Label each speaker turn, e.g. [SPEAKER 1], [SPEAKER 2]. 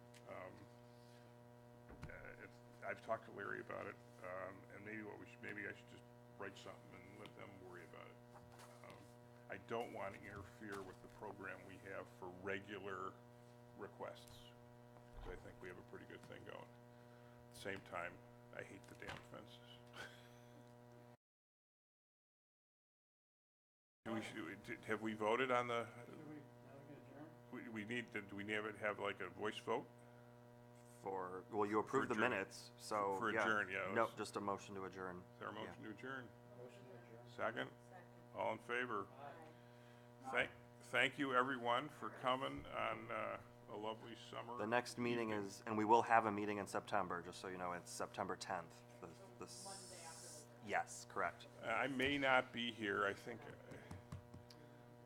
[SPEAKER 1] Um, uh, I've talked to Larry about it, um, and maybe what we should, maybe I should just write something and let them worry about it. Um, I don't want to interfere with the program we have for regular requests, because I think we have a pretty good thing going. Same time, I hate the damn fences. Do we, should- did- have we voted on the, we, we need, to- do we need to have like a voice vote?
[SPEAKER 2] For, well, you approved the
[SPEAKER 1] adjourn.
[SPEAKER 2] minutes, so,
[SPEAKER 1] For
[SPEAKER 2] yeah.
[SPEAKER 1] adjourn, yeah,
[SPEAKER 2] No,
[SPEAKER 1] let's-
[SPEAKER 2] just a motion to adjourn.
[SPEAKER 1] Is there a
[SPEAKER 2] Yeah.
[SPEAKER 1] motion to adjourn? Second? All in favor? Thank, thank you, everyone, for coming on uh, a lovely summer.
[SPEAKER 2] The next meeting is, and we will have a meeting in September, just so you know, it's September tenth. Monday after the. Yes, correct.
[SPEAKER 1] I may not be here, I think